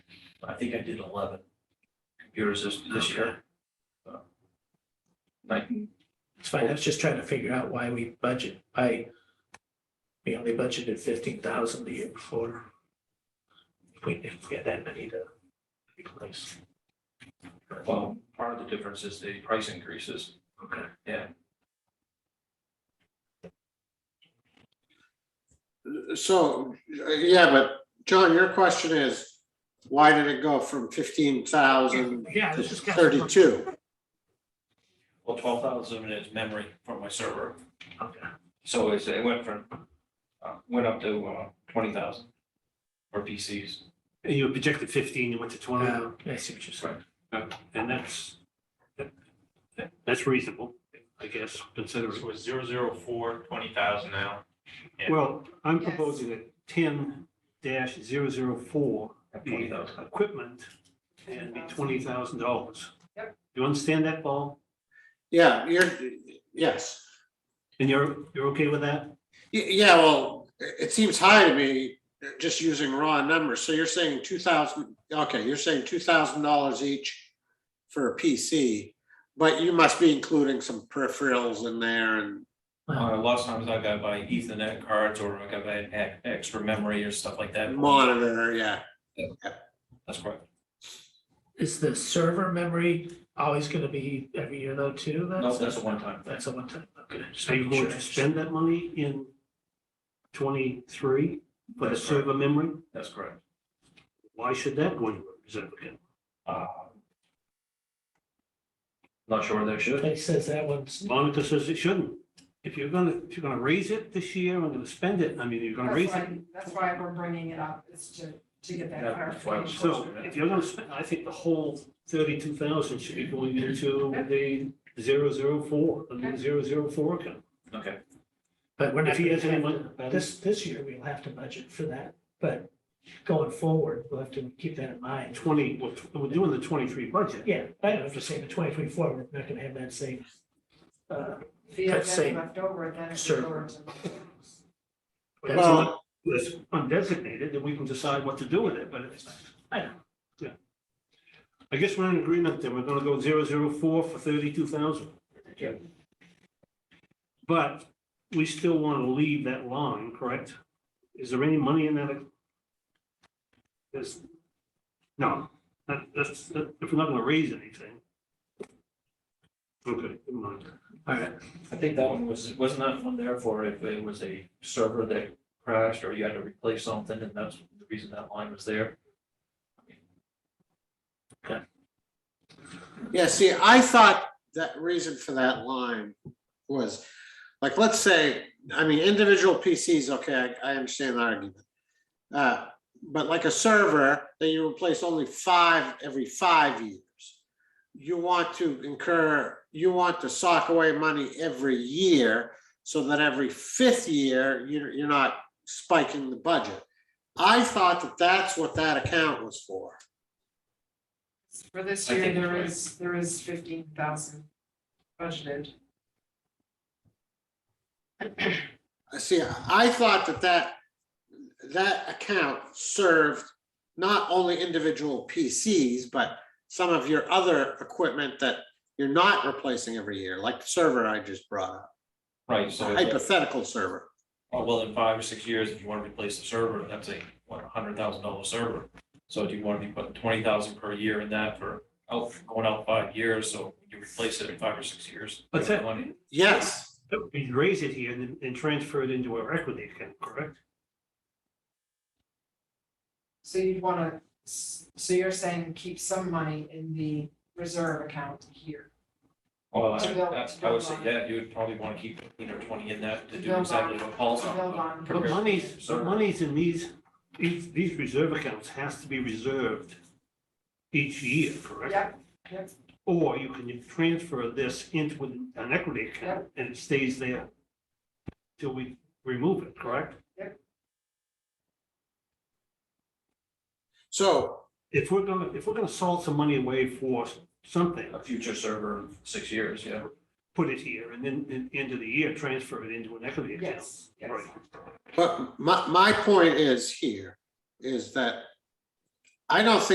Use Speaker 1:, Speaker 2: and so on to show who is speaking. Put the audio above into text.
Speaker 1: I think I did eleven computers this, this year. So, Like,
Speaker 2: It's fine. I was just trying to figure out why we budget, I, we only budgeted fifteen thousand the year before. If We didn't get that many to replace.
Speaker 1: well, part of the difference is the price increases.
Speaker 2: Okay.
Speaker 3: So, yeah, but John, your question is, why did it go from fifteen thousand
Speaker 2: Yeah,
Speaker 3: to
Speaker 2: this is.
Speaker 3: thirty-two?
Speaker 1: Well, twelve thousand is memory from my server,
Speaker 2: Okay.
Speaker 1: so it's, it went from, uh, went up to, uh, twenty thousand for PCs.
Speaker 4: And you projected fifteen, you went to twenty,
Speaker 2: Um, I see what you're saying.
Speaker 4: and that's, that- that's reasonable, I guess, considering.
Speaker 5: So it's zero zero four, twenty thousand now. Yeah.
Speaker 4: Well, I'm
Speaker 6: Yes.
Speaker 4: proposing that ten dash zero zero four be
Speaker 1: Twenty thousand.
Speaker 4: equipment and be twenty thousand dollars. You understand that, Paul?
Speaker 3: Yeah, you're, yes.
Speaker 4: And you're, you're okay with that?
Speaker 3: Y- Yeah, well, it it seems high to me, uh, just using raw numbers. So you're saying two thousand, okay, you're saying two thousand dollars each for a PC, but you must be including some peripherals in there and,
Speaker 1: Uh, a lot of times I got buy Ethernet cards or I got buy e- extra memory or stuff like that.
Speaker 3: and monitor, yeah.
Speaker 1: That's correct.
Speaker 2: Is the server memory always gonna be every year though too?
Speaker 1: No, that's a one-time thing.
Speaker 2: That's a one time, okay. just
Speaker 4: So you
Speaker 2: making
Speaker 4: going
Speaker 2: sure I
Speaker 4: to spend that money in twenty-three for the
Speaker 1: That's right.
Speaker 4: server memory?
Speaker 1: That's correct.
Speaker 4: Why should that go into reserve account?
Speaker 1: Uh, Not sure they should.
Speaker 2: understand. It says that one's,
Speaker 4: Monica says it shouldn't. If you're gonna, if you're gonna raise it this year, I'm gonna spend it, I mean, you're gonna raise
Speaker 6: That's
Speaker 4: it.
Speaker 6: why, that's why we're bringing it up, is to, to get that
Speaker 1: Yeah, that's why I'm
Speaker 6: clarification.
Speaker 4: So if you're gonna spend, I think the whole thirty-two thousand should be going into the zero zero four, the zero zero four account.
Speaker 1: Okay,
Speaker 2: but we're not.
Speaker 4: If he
Speaker 2: gonna
Speaker 4: has any
Speaker 2: have
Speaker 4: money,
Speaker 2: to- This, this year we'll have to budget for that, but going forward, we'll have to keep that in mind.
Speaker 4: twenty, we're, we're doing the twenty-three budget.
Speaker 2: Yeah, I don't have to say the twenty twenty four, we're not gonna have that same. uh,
Speaker 6: If you have
Speaker 2: That's same.
Speaker 6: that left over, then it's
Speaker 2: Sure.
Speaker 6: yours.
Speaker 4: That's
Speaker 3: Well,
Speaker 4: It's undesignated, then we can decide what to do with it, but it's, I don't, yeah. I guess we're in agreement that we're gonna go zero zero four for thirty-two thousand.
Speaker 2: Yeah.
Speaker 4: But we still wanna leave that line, correct? Is there any money in that? There's, no, that, that's, that- if we're not gonna raise anything. Okay, never mind.
Speaker 2: All right,
Speaker 1: I think that one was, wasn't that one there for if it was a server that crashed or you had to replace something and that's the reason that line was there?
Speaker 3: Yeah, see, I thought that reason for that line was, like, let's say, I mean, individual PCs, okay, I, I understand the argument. Uh, but like a server, that you replace only five every five years. You want to incur, you want to sock away money every year, so that every fifth year, you're, you're not spiking the budget. I thought that that's what that account was for.
Speaker 6: For this
Speaker 1: I
Speaker 6: year,
Speaker 1: think
Speaker 6: there
Speaker 1: you're right.
Speaker 6: is, there is fifteen thousand budgeted.
Speaker 3: See, I thought that that, that account served not only individual PCs, but some of your other equipment that you're not replacing every year, like the server I just brought up,
Speaker 1: Right, so,
Speaker 3: the hypothetical server.
Speaker 1: oh, well, in five or six years, if you want to replace the server, that's a, what, a hundred thousand dollar server. So do you want to be putting twenty thousand per year in that for, out, going out five years, so you replace it in five or six years?
Speaker 4: What's that?
Speaker 1: Money.
Speaker 3: Yes,
Speaker 4: We raise it here and, then- and transfer it into our equity account, correct?
Speaker 6: So you'd wanna, s- so you're saying keep some money in the reserve account here.
Speaker 1: Well,
Speaker 6: To
Speaker 1: I-
Speaker 6: build-
Speaker 1: that's,
Speaker 6: to
Speaker 1: I would
Speaker 6: build
Speaker 1: say,
Speaker 6: on.
Speaker 1: yeah, you would probably want to keep, you know, twenty in that to
Speaker 6: To
Speaker 1: do
Speaker 6: build
Speaker 1: exactly
Speaker 6: on-
Speaker 1: what Paul's
Speaker 6: to
Speaker 1: on.
Speaker 6: build on.
Speaker 4: But
Speaker 1: Compared-
Speaker 4: monies, but
Speaker 1: Sure.
Speaker 4: monies in these, these, these reserve accounts has to be reserved each year, correct?
Speaker 6: Yep, yep,
Speaker 4: Or you can transfer this into an equity account and it stays there till we remove it, correct?
Speaker 3: so,
Speaker 4: If we're gonna, if we're gonna salt some money away for something,
Speaker 1: A future server, in six years, yeah.
Speaker 4: put it here and then, then end of the year, transfer it into an equity account.
Speaker 6: yes, yes.
Speaker 4: Right.
Speaker 3: but my, my point is here, is that I don't think